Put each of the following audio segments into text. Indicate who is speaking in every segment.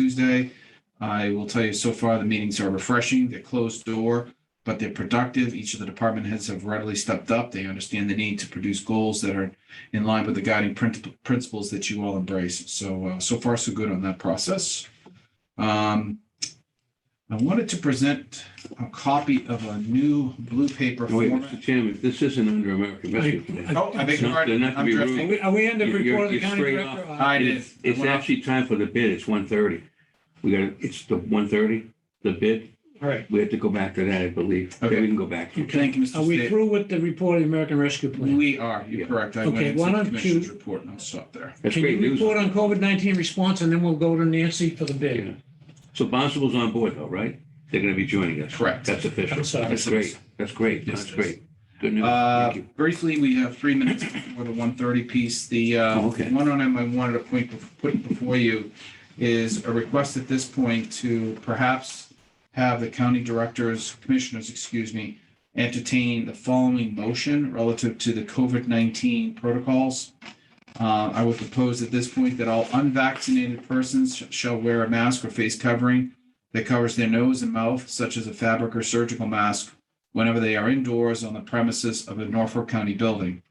Speaker 1: Tuesday. I will tell you so far, the meetings are refreshing. They're closed door, but they're productive. Each of the department heads have readily stepped up. They understand the need to produce goals that are in line with the guiding princip- principles that you all embrace. So, uh, so far, so good on that process. Um, I wanted to present a copy of a new blue paper
Speaker 2: Oh, Wait,
Speaker 1: format.
Speaker 2: Mr. Chairman, this isn't under American Rescue Plan.
Speaker 1: Oh, I beg your
Speaker 2: Not- they're
Speaker 1: pardon.
Speaker 2: not to
Speaker 1: I'm
Speaker 2: be rude.
Speaker 1: drifting.
Speaker 3: Are we, are we under
Speaker 2: You're-
Speaker 3: report of the
Speaker 2: you're
Speaker 3: county
Speaker 2: straight
Speaker 3: director? Uh,
Speaker 1: I did.
Speaker 2: It's it's actually time for the bid. It's one thirty. We got, it's the one thirty, the bid.
Speaker 3: All right.
Speaker 2: We have to go back to that, I believe.
Speaker 1: Okay.
Speaker 2: We can go back.
Speaker 1: Thank you, Mr.
Speaker 3: Are we
Speaker 1: State.
Speaker 3: through with the report of the American Rescue Plan?
Speaker 1: We are, you're
Speaker 2: Yeah.
Speaker 1: correct. I went
Speaker 3: Okay,
Speaker 1: into
Speaker 3: why
Speaker 1: the
Speaker 3: don't you-
Speaker 1: commissioner's report and I'll stop there.
Speaker 2: That's
Speaker 3: Can
Speaker 2: great
Speaker 3: you
Speaker 2: news.
Speaker 3: report on COVID-19 response and then we'll go to Nancy for the
Speaker 2: Yeah.
Speaker 3: bid?
Speaker 2: So Bonsable's on board though, right? They're going to be joining us.
Speaker 1: Correct.
Speaker 2: That's official.
Speaker 3: I'm sorry.
Speaker 2: That's great. That's great. That's great. Good news.
Speaker 1: Uh,
Speaker 2: Thank you.
Speaker 1: Briefly, we have three minutes for the 130 piece. The uh,
Speaker 2: Oh, okay.
Speaker 1: one item I wanted to point, put before you is a request at this point to perhaps have the county directors, commissioners, excuse me, entertain the following motion relative to the COVID-19 protocols. Uh, I would propose at this point that all unvaccinated persons sh- shall wear a mask or face covering that covers their nose and mouth, such as a fabric or surgical mask, whenever they are indoors on the premises of a Norfolk County building.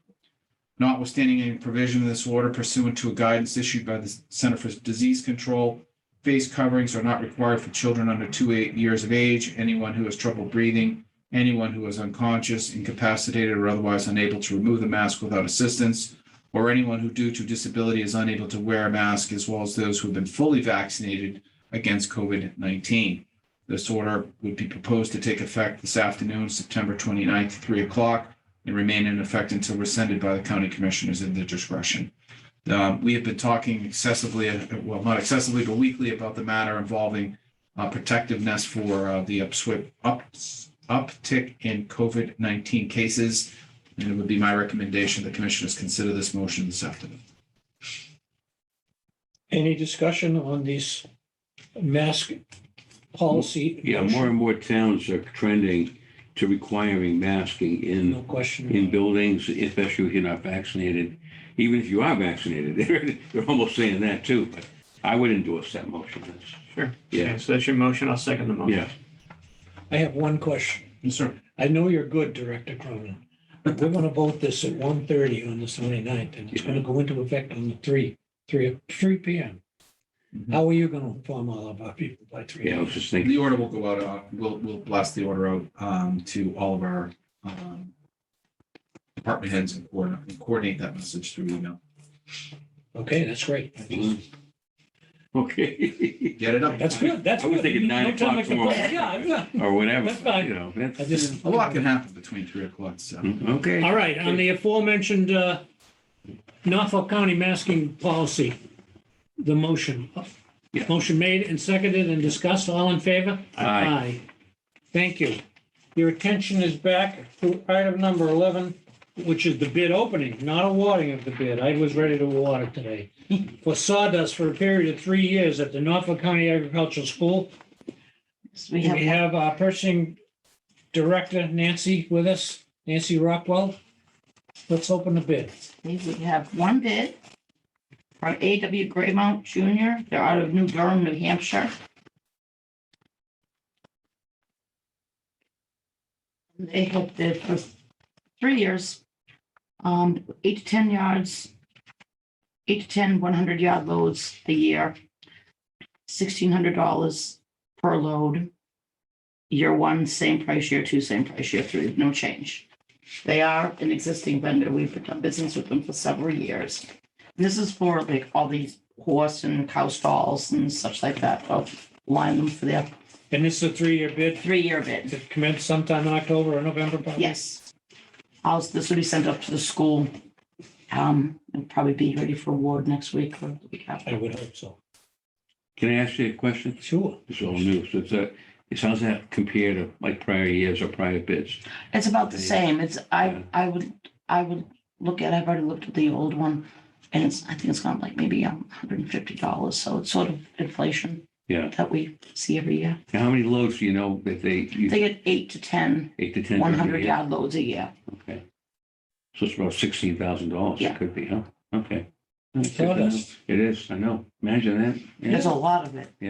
Speaker 1: Notwithstanding any provision in this order pursuant to a guidance issued by the Center for Disease Control, face coverings are not required for children under two eight years of age, anyone who has trouble breathing, anyone who is unconscious, incapacitated, or otherwise unable to remove the mask without assistance, or anyone who due to disability is unable to wear a mask, as well as those who have been fully vaccinated against COVID-19. This order would be proposed to take effect this afternoon, September 29th, 3 o'clock, and remain in effect until rescinded by the county commissioners at their discretion. Um, We have been talking excessively, uh, well, not excessively, but weekly about the matter involving uh, protectiveness for uh, the upswi- ups- uptick in COVID-19 cases. And it would be my recommendation the commissioners consider this motion this afternoon.
Speaker 3: Any discussion on this mask policy?
Speaker 2: Yeah, more and more towns are trending to requiring masking in
Speaker 3: No question.
Speaker 2: in buildings, especially if you're not vaccinated. Even if you are vaccinated, they're, they're almost saying that too, but I would endorse that motion. That's-
Speaker 4: Sure.
Speaker 2: Yeah.
Speaker 4: Okay, So that's your motion. I'll second the motion.
Speaker 2: Yeah,
Speaker 3: I have one question.
Speaker 1: Yes, sir.
Speaker 3: I know you're good, Director Cronin. but We're going to vote this at 1:30 on the 29th and it's going to go into effect on the 3, 3, 3 PM.
Speaker 1: Mhm.
Speaker 3: How are you going to inform all of our people by 3?
Speaker 2: Mm-hmm. yeah, I was just thinking,
Speaker 1: The order will go out, uh, we'll, we'll blast the order out um, to all of our um, department heads and coordinate, and coordinate that message through email.
Speaker 3: Okay, that's great.
Speaker 2: okay,
Speaker 1: Get it up.
Speaker 3: That's good, that's
Speaker 2: I was
Speaker 3: good.
Speaker 2: thinking nine
Speaker 3: No time
Speaker 2: o'clock tomorrow.
Speaker 3: to complain. Yeah, yeah.
Speaker 2: or whatever,
Speaker 3: That's fine.
Speaker 2: you know,
Speaker 3: I
Speaker 2: that's, mm,
Speaker 3: just.
Speaker 1: A lot can happen between three o'clock and seven.
Speaker 2: okay.
Speaker 3: All right, on the aforementioned uh, Norfolk County masking policy, the motion.
Speaker 2: Yeah.
Speaker 3: Motion made and seconded and discussed, all in favor?
Speaker 2: Aye.
Speaker 3: Thank you. Your attention is back to item number 11, which is the bid opening, not awarding of the bid. I was ready to award it today. For sawdust for a period of three years at the Norfolk County Agricultural School.
Speaker 5: We
Speaker 3: We
Speaker 5: have,
Speaker 3: have our purchasing director, Nancy, with us, Nancy Rockwell. Let's open the bid.
Speaker 5: we have one bid from A.W. Graymount Jr. They're out of New Durham, New Hampshire. They have bid for three years, um, eight to ten yards, eight to ten 100 yard loads a year, sixteen hundred dollars per load. Year one, same price, year two, same price, year three, no change. They are an existing vendor. We've done business with them for several years. This is for like all these horse and cow stalls and such like that. I'll line them for their
Speaker 3: And this is a three-year bid
Speaker 5: three-year bid.
Speaker 3: that commenced sometime in October or November. probably?
Speaker 5: Yes. I'll, this will be sent up to the school. Um, and probably be ready for award next week or the week
Speaker 3: I
Speaker 5: after.
Speaker 3: would hope so.
Speaker 2: Can I ask you a question?
Speaker 3: Sure.
Speaker 2: It's all new, so it's a, it's how's that compare to like prior years or prior bids?
Speaker 5: It's about the same. It's,
Speaker 2: Yeah.
Speaker 5: I, I would, I would look at, I've already looked at the old one. And it's, I think it's gone up like maybe um, hundred and fifty dollars. So it's sort of inflation
Speaker 2: Yeah,
Speaker 5: that we see every year.
Speaker 2: and how many loads do you know that they, you-
Speaker 5: They get eight to ten
Speaker 2: eight to ten?
Speaker 5: one hundred yard loads a year.
Speaker 2: Okay. So it's about sixteen thousand dollars, it
Speaker 5: Yeah.
Speaker 2: could be, huh? Okay.
Speaker 3: Sawdust.
Speaker 2: It is, I know. Imagine that. Yeah.
Speaker 5: There's a lot of it.